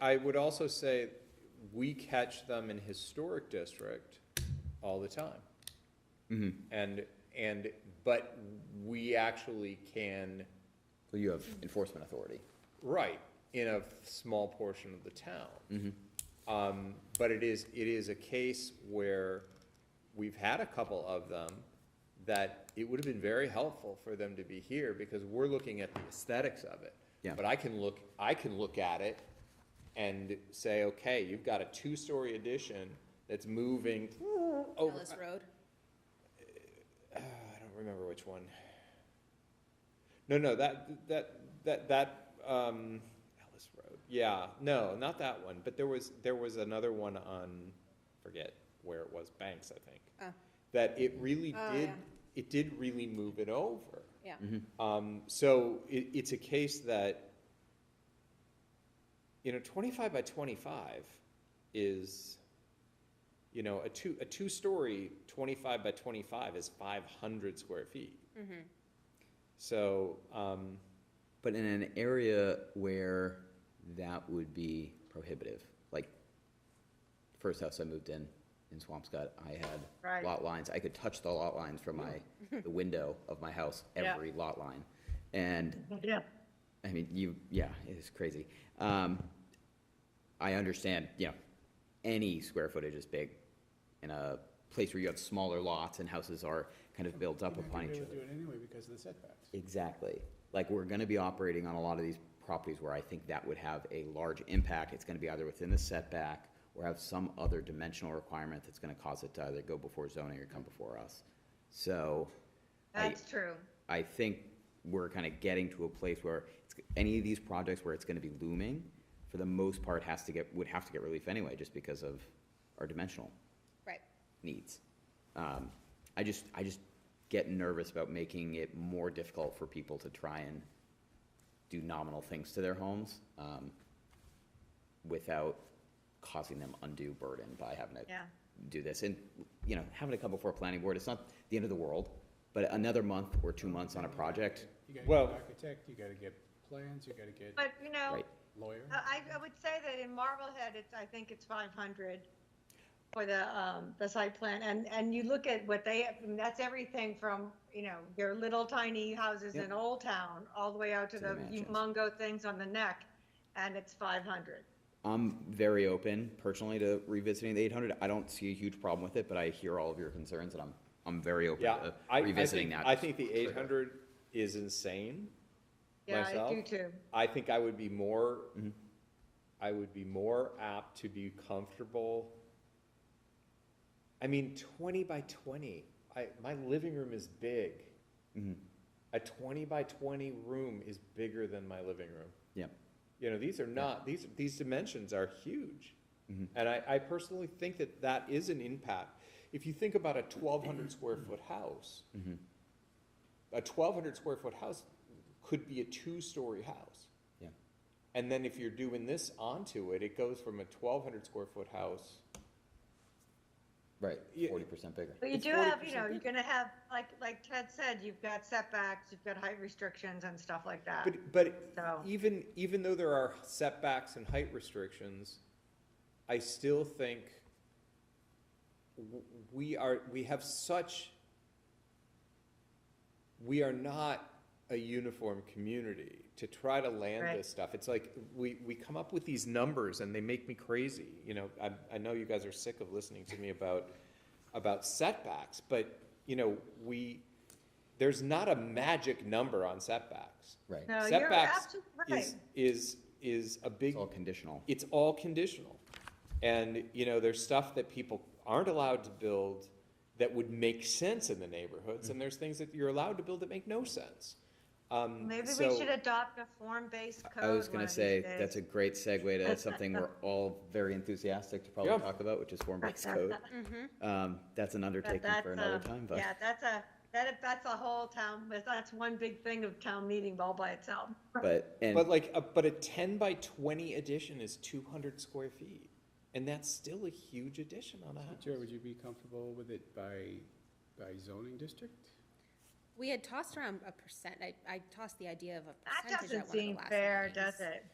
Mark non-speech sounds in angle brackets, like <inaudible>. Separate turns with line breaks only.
I would also say, we catch them in historic district all the time. And, and, but we actually can,
So you have enforcement authority.
right, in a small portion of the town. Um, but it is, it is a case where we've had a couple of them that it would have been very helpful for them to be here because we're looking at the aesthetics of it.
Yeah.
But I can look, I can look at it and say, okay, you've got a two-story addition that's moving over.
Ellis Road.
<sighs> I don't remember which one. No, no, that, that, that, that, um, Ellis Road, yeah, no, not that one, but there was, there was another one on, forget where it was, Banks, I think.
Oh.
That it really
Oh,
did,
yeah.
it did really move it over.
Yeah.
Um, so it, it's a case that, you know, twenty-five by twenty-five is, you know, a two, a two-story twenty-five by twenty-five is five hundred square feet. So, um,
But in an area where that would be prohibitive, like first house I moved in, in Swampscott, I had
Right.
lot lines. I could touch the lot lines from
<laughs>
my, the window of my house,
Yeah.
every lot line. And
Yeah,
I mean, you, yeah, it's crazy. Um, I understand, you know, any square footage is big in a place where you have smaller lots and houses are kind of built up
You're not
upon
gonna
each
be
other.
able to Do it anyway because of the setbacks.
Exactly. Like, we're gonna be operating on a lot of these properties where I think that would have a large impact. It's gonna be either within the setback or have some other dimensional requirement that's gonna cause it to either go before zoning or come before us. So. I-
that's true.
I think we're kind of getting to a place where it's, any of these projects where it's gonna be looming, for the most part, has to get, would have to get relief anyway, just because of our dimensional
Right.
needs. Um, I just, I just get nervous about making it more difficult for people to try and do nominal things to their homes, um, without causing them undue burden by having to
Yeah.
do this. And, you know, having to come before planning board, it's not the end of the world, but another month or two months on a project,
You gotta
Well-
get an architect, you gotta get plans, you gotta get
But, uh, you know,
right?
lawyer.
I, I would say that in Marblehead, it's, I think it's five hundred for the, um, the site plan, and, and you look at what they, have, and that's everything from, you know, your little tiny houses in Old Town, all the way out to
To the
the
mansions.
humongo things on the neck, and it's five hundred.
I'm very open personally to revisiting the eight hundred. I don't see a huge problem with it, but I hear all of your concerns and I'm, I'm very open
yeah,
to
I, I
revisiting
think,
that.
I think the eight hundred is insane.
Yeah, I do
Myself?
too.
I think I would be more, I would be more apt to be comfortable. I mean, twenty by twenty, I, my living room is big. A twenty by twenty room is bigger than my living room.
Yeah,
You know, these are not, these, these dimensions are huge. And I, I personally think that that is an impact. If you think about a twelve hundred square foot house, a twelve hundred square foot house could be a two-story house.
yeah,
And then if you're doing this onto it, it goes from a twelve hundred square foot house.
right,
Yeah.
forty percent bigger.
But you
It's
do have, you
40%
know, you're gonna have, like, like Ted said, you've got setbacks, you've got height restrictions and stuff like that.
But, but
So-
even, even though there are setbacks and height restrictions, I still think w- we are, we have such, we are not a uniform community to try to land
Right.
this stuff. It's like, we, we come up with these numbers and they make me crazy. You know, I, I know you guys are sick of listening to me about, about setbacks, but, you know, we, there's not a magic number on setbacks.
Right.
No, you're
Setbacks
absolutely
is,
right.
is, is a big,
It's all conditional.
it's all conditional. And, you know, there's stuff that people aren't allowed to build that would make sense in the neighborhoods, and there's things that you're allowed to build that make no sense. Um,
Maybe we
so-
should adopt a form-based code.
I was
one
gonna
of these
say,
days.
that's a great segue
<laughs>
to something we're all very enthusiastic to probably
Yeah.
talk about, which is form-based code. Um, that's an
Mm-hmm. But
undertaking
that's,
for another
um,
time, but
Yeah, that's a, that, that's a whole town, but that's one big thing of town meeting all by itself.
But,
But
and,
like, a- but a ten by twenty addition is two hundred square feet, and that's still a huge addition on a
Jerry,
house.
would you be comfortable with it by, by zoning district?
We had tossed around a percent. I, I tossed the idea of a
That
percentage at
doesn't
one of the
seem
last
fair,
meetings.
does it?